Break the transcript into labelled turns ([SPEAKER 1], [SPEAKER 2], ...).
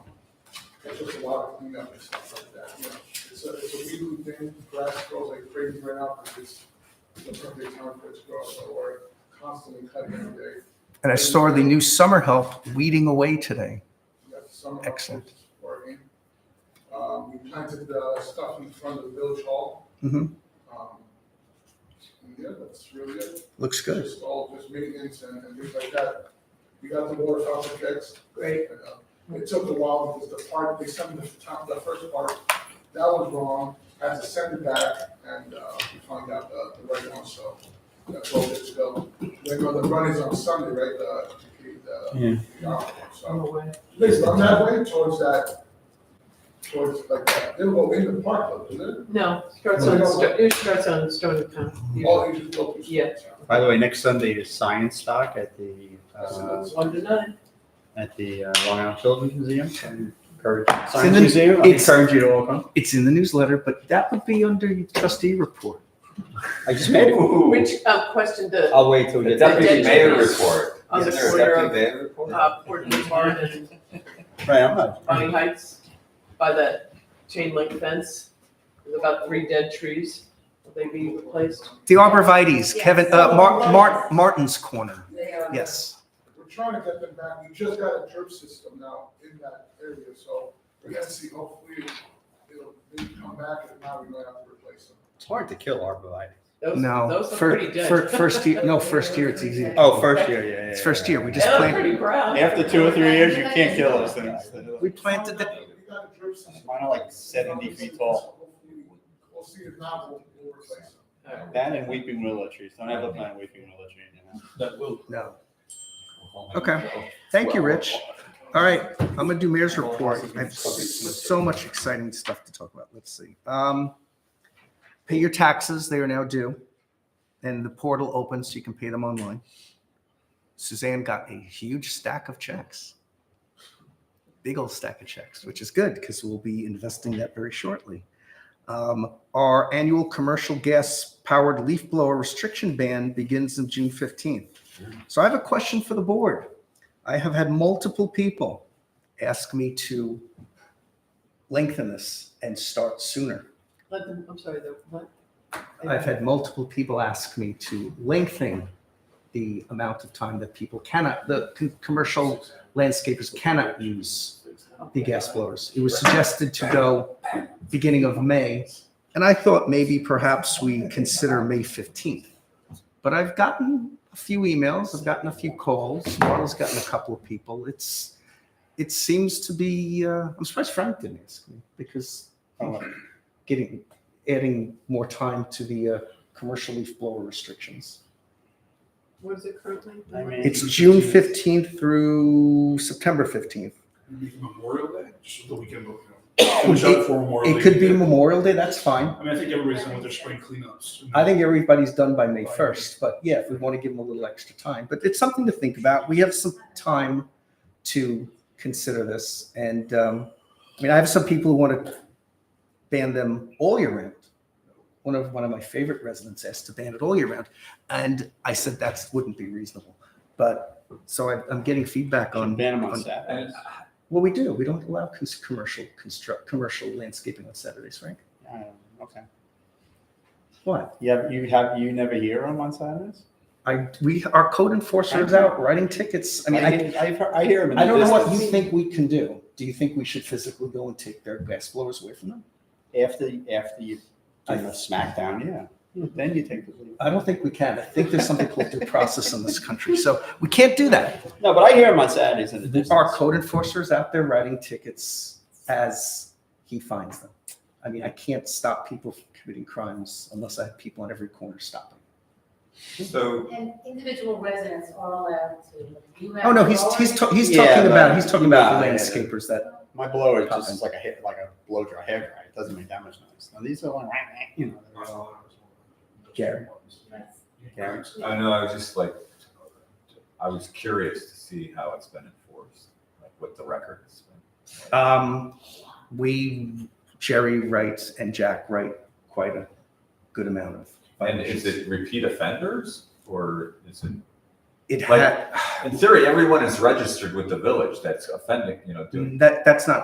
[SPEAKER 1] just a lot of cleanup and stuff like that, you know. It's a, it's a weekly thing, grass grows like crazy right now, because it's the perfect time for it to grow, so we're constantly cutting every day.
[SPEAKER 2] And I saw the new summer help weeding away today.
[SPEAKER 1] We got some of
[SPEAKER 2] Excellent.
[SPEAKER 1] it's Working. Um, we planted the stuff in front of the village hall.
[SPEAKER 2] Mhm.
[SPEAKER 1] Um, and yeah, that's really it.
[SPEAKER 2] Looks
[SPEAKER 1] It's Just all just maintenance and, and things like that. We got the water fountain fixed.
[SPEAKER 3] Great.
[SPEAKER 1] and, uh, It took a while because the part, they sent the top, the first part, that was wrong, had to send it back and, uh, we found out the, the right one, so that's all good to go. Then when the run is on Sunday, right, the, the- the, the, hour, so. Basically, I'm that way towards that, towards like that, they'll go in the park, though, isn't
[SPEAKER 3] No, starts on, Sto- it starts on Stony Town.
[SPEAKER 1] it? All you just go through.
[SPEAKER 3] Yeah.
[SPEAKER 4] By the way, next Sunday is science talk at the, uh,
[SPEAKER 3] One to nine.
[SPEAKER 4] at the uh, Long Island Children's Museum. I Encourage,
[SPEAKER 2] in
[SPEAKER 4] science
[SPEAKER 2] the-
[SPEAKER 4] museum, I
[SPEAKER 2] it's-
[SPEAKER 4] encourage you to all come.
[SPEAKER 2] It's in the newsletter, but that would be under your trustee report.
[SPEAKER 4] I just made it.
[SPEAKER 3] Which, uh, question the,
[SPEAKER 4] I'll wait till we
[SPEAKER 5] The
[SPEAKER 4] get. there.
[SPEAKER 5] deputy mayor report.
[SPEAKER 3] On the
[SPEAKER 5] Isn't there a
[SPEAKER 3] corner
[SPEAKER 5] deputy mayor report?
[SPEAKER 3] uh, Portland Barn and
[SPEAKER 4] Right, I'm not.
[SPEAKER 3] Bonny Heights by that chain link fence? There's about three dead trees. Will they be replaced?
[SPEAKER 2] The arborvitae's, Kevin, uh, Mar- Mar- Martin's Corner.
[SPEAKER 6] They are.
[SPEAKER 2] Yes.
[SPEAKER 1] We're trying to get them back, we just got a drip system now in that area, so we're gonna see, hopefully it'll, maybe come back, if not, we might have to replace them.
[SPEAKER 4] It's hard to kill arborvitae.
[SPEAKER 3] Those-
[SPEAKER 2] No,
[SPEAKER 3] Those are
[SPEAKER 2] fir-
[SPEAKER 3] pretty dead.
[SPEAKER 2] fir- first year, no, first year it's easy. to
[SPEAKER 4] Oh,
[SPEAKER 2] kill.
[SPEAKER 4] first year, yeah, yeah.
[SPEAKER 2] It's
[SPEAKER 4] yeah,
[SPEAKER 2] first
[SPEAKER 4] yeah,
[SPEAKER 2] year,
[SPEAKER 4] yeah,
[SPEAKER 2] we
[SPEAKER 4] yeah.
[SPEAKER 2] just
[SPEAKER 3] They look
[SPEAKER 2] plant-
[SPEAKER 3] pretty brown.
[SPEAKER 4] After two or three years, you can't kill those things.
[SPEAKER 2] We planted the,
[SPEAKER 1] We got a drip system.
[SPEAKER 4] Mine are like 70 feet tall.
[SPEAKER 1] Hopefully, We'll see if not, we'll, we'll replace them.
[SPEAKER 4] That and weeping willow trees. Don't ever plant weeping willow tree in your house.
[SPEAKER 2] no. Okay. Thank you, Rich. All right, I'm gonna do mayor's report. I have s- so much exciting stuff to talk about. Let's see. Um, pay your taxes, they are now due. And the portal opens so you can pay them online. Suzanne got a huge stack of checks. Big old stack of checks, which is good because we'll be investing that very shortly. Um, our annual commercial gas powered leaf blower restriction ban begins on June fifteenth. So I have a question for the board. I have had multiple people ask me to lengthen this and start sooner.
[SPEAKER 3] Let them, I'm sorry, the, what?
[SPEAKER 2] I've had multiple people ask me to lengthen the amount of time that people cannot, the con-
[SPEAKER 7] Oh.
[SPEAKER 2] commercial landscapers cannot use the gas blowers. It was suggested to go beginning of May, and I thought maybe perhaps we consider May 15th. But I've gotten a few emails, I've gotten a few calls, Marla's gotten a couple of people. It's, it seems to be, uh, I'm surprised Frank didn't ask me because uh, getting, adding more time to the uh, commercial leaf blower restrictions.
[SPEAKER 3] What is it currently?
[SPEAKER 4] I mean-
[SPEAKER 2] It's June 15th through September 15th.
[SPEAKER 7] Memorial Day, just the weekend before.
[SPEAKER 2] Push out It could be Memorial Day, that's fine.
[SPEAKER 7] I mean, I think everybody's done with their spring cleanups.
[SPEAKER 2] I think everybody's done by May first, but yeah, if we want to give them a little extra time, but it's something to think about. We have some time to consider this, and um, I mean, I have some people who want to ban them all year round. One of one of my favorite residents asked to ban it all year round, and I said that wouldn't be reasonable. But so I, I'm getting feedback on
[SPEAKER 4] Ban them on
[SPEAKER 2] on-
[SPEAKER 4] Saturdays.
[SPEAKER 2] Well, we do. We don't allow cons- commercial construct commercial landscaping on Saturdays, Frank.
[SPEAKER 4] Um, Okay.
[SPEAKER 2] What?
[SPEAKER 4] You have, you have, you never hear them on Saturdays?
[SPEAKER 2] I we our code enforcer is out writing tickets. I mean, I,
[SPEAKER 4] I, I've heard- I hear them in the
[SPEAKER 2] I don't know what you
[SPEAKER 4] distance.
[SPEAKER 2] think we can do. Do you think we should physically go and take their gas blowers away from them?
[SPEAKER 4] After, after you, Hmm. do
[SPEAKER 2] I-
[SPEAKER 4] a smackdown, yeah. Then you take the lead.
[SPEAKER 2] I don't think we can. I think there's something called due process in this country. So we can't do that.
[SPEAKER 4] No, but I hear them on Saturdays in the
[SPEAKER 2] Our
[SPEAKER 4] distance.
[SPEAKER 2] code enforcer is out there writing tickets as he finds them. I mean, I can't stop people from committing crimes unless I have people on every corner stopping.
[SPEAKER 5] So,
[SPEAKER 6] And individual residents are allowed to. You have
[SPEAKER 2] Oh, no, he's,
[SPEAKER 6] your
[SPEAKER 2] he's,
[SPEAKER 6] own-
[SPEAKER 2] ta- he's
[SPEAKER 4] Yeah,
[SPEAKER 2] talking about,
[SPEAKER 4] but-
[SPEAKER 2] he's talking about the
[SPEAKER 4] Yeah, yeah, yeah.
[SPEAKER 2] landscapers that,
[SPEAKER 4] My blower is just is like a hair, like a blow dry hair dryer. It doesn't make that much noise. Now these are like, you know. they're all-
[SPEAKER 2] Gary.
[SPEAKER 4] Gary.
[SPEAKER 5] I know, I was just like, I was curious to see how it's been enforced, like what the record has been.
[SPEAKER 2] Um, we, Jerry writes and Jack write quite a good amount of.
[SPEAKER 5] And is it repeat offenders or is it,
[SPEAKER 2] It
[SPEAKER 5] like,
[SPEAKER 2] had,
[SPEAKER 5] in theory, everyone is registered with the village that's offending, you know, doing
[SPEAKER 2] that, that's not